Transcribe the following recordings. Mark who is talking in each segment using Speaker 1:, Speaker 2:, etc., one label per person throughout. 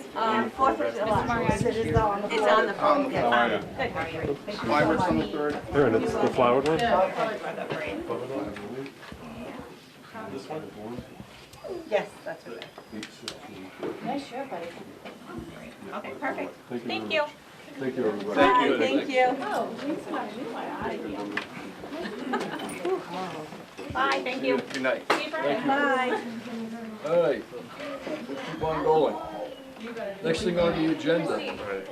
Speaker 1: Fourth of July.
Speaker 2: Is it- is that on the
Speaker 1: It's on the phone,
Speaker 3: How
Speaker 1: yes.
Speaker 3: are you?
Speaker 1: Good, how are you?
Speaker 3: My work's on the third.
Speaker 4: There, and it's the flowered one?
Speaker 3: This one?
Speaker 1: Yes, that's what it
Speaker 2: Nice shirt, buddy.
Speaker 1: is. Okay, perfect. Thank
Speaker 4: very
Speaker 1: you.
Speaker 4: much. Thank you, everybody.
Speaker 1: Bye, thank you.
Speaker 2: Oh, he's my new one, I
Speaker 1: Bye, thank you.
Speaker 3: Good night.
Speaker 1: See you Friday. Bye.
Speaker 5: All right, let's keep on going. Next thing on the agenda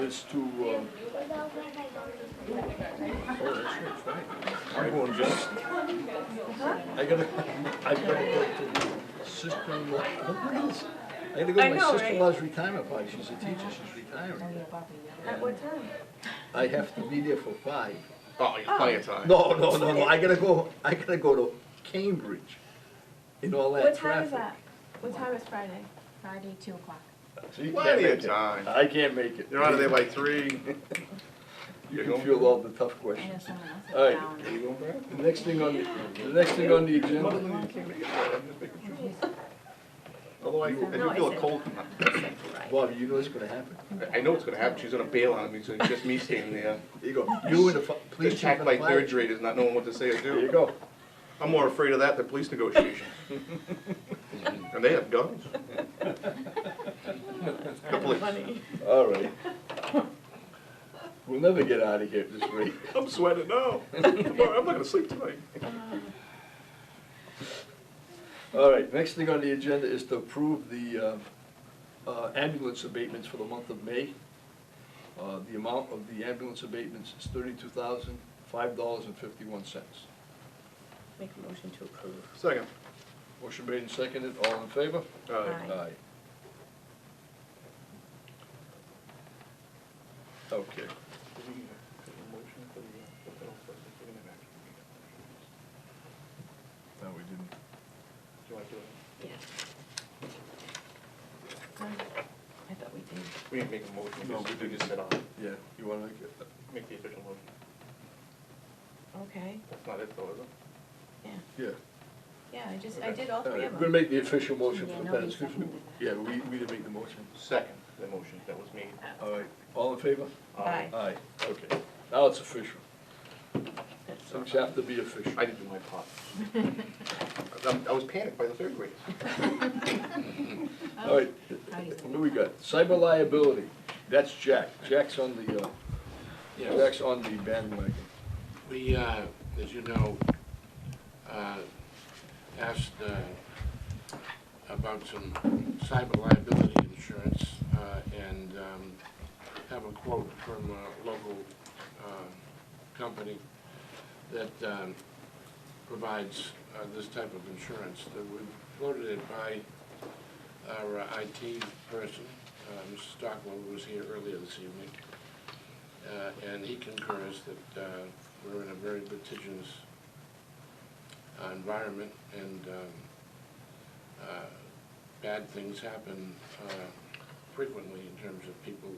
Speaker 5: is to, um... Oh, that's right, that's right. I'm going just... I gotta, I gotta go to the sister-in-law, oh, what is? I gotta go
Speaker 1: I
Speaker 5: to
Speaker 1: know,
Speaker 5: my sister-in-law's retirement party, she's a teacher, she's retiring.
Speaker 1: At what time?
Speaker 5: I have to be there for five.
Speaker 3: Oh, you got plenty of time.
Speaker 5: No, no, no, no, I gotta go, I gotta go to Cambridge in all that
Speaker 6: What
Speaker 5: traffic.
Speaker 6: time is that? What time is Friday?
Speaker 2: Friday, two o'clock.
Speaker 5: So you can't
Speaker 3: Plenty of
Speaker 5: make it.
Speaker 3: time.
Speaker 5: I can't make it.
Speaker 3: You're out of there by three.
Speaker 5: You can feel all the tough
Speaker 2: I know
Speaker 5: questions.
Speaker 2: someone else is
Speaker 5: All right,
Speaker 2: down.
Speaker 5: the next thing on, the the next thing on the agenda,
Speaker 3: Although I, I do feel a cold.
Speaker 5: Bob, you know what's gonna happen?
Speaker 3: I know what's gonna happen. She's gonna bail on me, so it's just me standing there.
Speaker 5: There you go, you and the fi- police chief
Speaker 3: Attacked
Speaker 5: and the
Speaker 3: by
Speaker 5: fire.
Speaker 3: third graders, not knowing what to say or
Speaker 5: There you
Speaker 3: do.
Speaker 5: go.
Speaker 3: I'm more afraid of that than police negotiations. And they have guns. Couple of,
Speaker 5: All right. We'll never get out of here at this rate.
Speaker 3: I'm sweating now. Tomorrow, I'm not gonna sleep tonight.
Speaker 5: All right, next thing on the agenda is to approve the um, uh, ambulance abatements for the month of May. Uh, The amount of the ambulance abatements is thirty-two thousand, five dollars and fifty-one cents.
Speaker 1: Make a motion to approve.
Speaker 3: Second.
Speaker 5: Motion made and seconded, all in favor?
Speaker 3: Uh,
Speaker 1: Aye.
Speaker 5: Okay. No, we didn't.
Speaker 1: Yeah. I thought we did.
Speaker 3: We didn't make a motion.
Speaker 5: No, we
Speaker 3: did just sit on, it.
Speaker 5: Yeah, you want to make it?
Speaker 3: make the official motion.
Speaker 1: Okay,
Speaker 3: That's not it though, is it?
Speaker 1: yeah,
Speaker 5: Yeah.
Speaker 1: yeah, I just, I did all three
Speaker 5: We're
Speaker 1: of them.
Speaker 5: going to make the official motion
Speaker 2: Yeah,
Speaker 5: for the
Speaker 2: nobody
Speaker 5: minutes. 'cause we-
Speaker 2: seconded
Speaker 5: Yeah, we, we didn't make the motion.
Speaker 3: Second, the motion that was made. Um,
Speaker 5: All right, all in favor?
Speaker 1: Aye.
Speaker 5: Aye, okay. Now it's official.
Speaker 1: That's
Speaker 5: Things have to be official.
Speaker 3: I didn't do my part. I- I was panicked by the third graders.
Speaker 1: Oh.
Speaker 5: All right, what do we got? Cyber liability, that's Jack. Jack's on the, uh,
Speaker 7: Yes,
Speaker 5: Jack's on the bandwagon.
Speaker 7: we, uh, as you know, uh, asked uh, about some cyber liability insurance uh, and um, have a quote from a local uh, company that um, provides uh, this type of insurance. That We floated it by our uh, IT person, uh, Mr. Stockwell, who was here earlier this evening. Uh, and he concurs that uh, we're in a very litigious uh, environment and um, uh, bad things happen uh, frequently in terms of people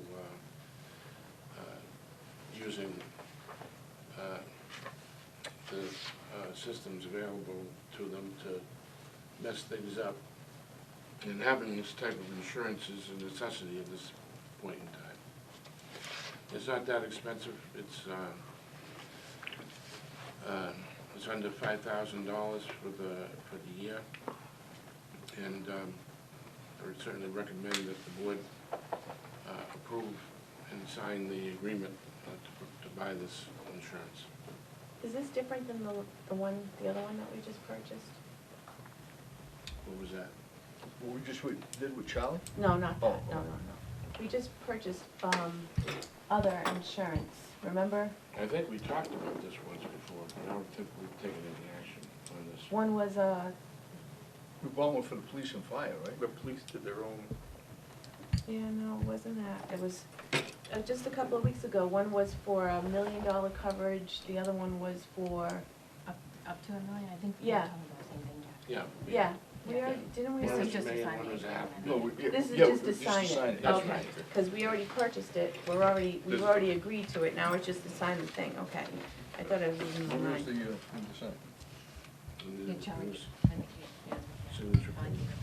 Speaker 7: uh, uh, using uh, the uh, systems available to them to mess things up. And having this type of insurance is a necessity at this point in time. It's not that expensive, it's, uh, uh, it's under five thousand dollars for the, for the year. And, um, I would certainly recommend that the board, uh, approve and sign the agreement uh, to, to buy this insurance.
Speaker 6: Is this different than the, the one, the other one that we just purchased?
Speaker 7: What was that?
Speaker 5: What we just we- did with Charlie?
Speaker 6: No, not
Speaker 5: Oh,
Speaker 6: that, no, no, no. We just purchased, um, other insurance, remember?
Speaker 7: I think we talked about this once before, but I don't think we've taken any action on this.
Speaker 6: One was, uh,
Speaker 5: We bought one for the police and fire, right?
Speaker 3: The police did their own.
Speaker 6: yeah, no, it wasn't that, it was, uh, just a couple of weeks ago, one was for a million dollar coverage, the other one was for,
Speaker 2: Up, up to a million, I think we
Speaker 6: Yeah.
Speaker 2: were talking about the same thing, Jack.
Speaker 7: Yeah. we-
Speaker 6: yeah, we already, didn't we?
Speaker 2: This
Speaker 7: One
Speaker 2: is
Speaker 6: already-
Speaker 7: was
Speaker 2: just a
Speaker 7: made,
Speaker 2: sign
Speaker 7: one
Speaker 2: of
Speaker 7: was
Speaker 2: the
Speaker 7: app-
Speaker 2: agreement.
Speaker 5: No, we, yeah,
Speaker 6: This is
Speaker 5: yeah,
Speaker 6: just
Speaker 5: we-
Speaker 6: to sign it,
Speaker 5: that's
Speaker 6: okay,
Speaker 5: right.
Speaker 6: because we already purchased it, we're already, we've
Speaker 3: This-
Speaker 6: already agreed to it, now it's just to sign the thing, okay. I thought I was losing my
Speaker 5: Where is
Speaker 6: mind.
Speaker 5: the, uh, thing to sign?
Speaker 7: and
Speaker 2: Yeah,
Speaker 7: it
Speaker 2: Charlie,
Speaker 7: was
Speaker 2: I think, you- yeah.
Speaker 7: signature.
Speaker 2: Fine.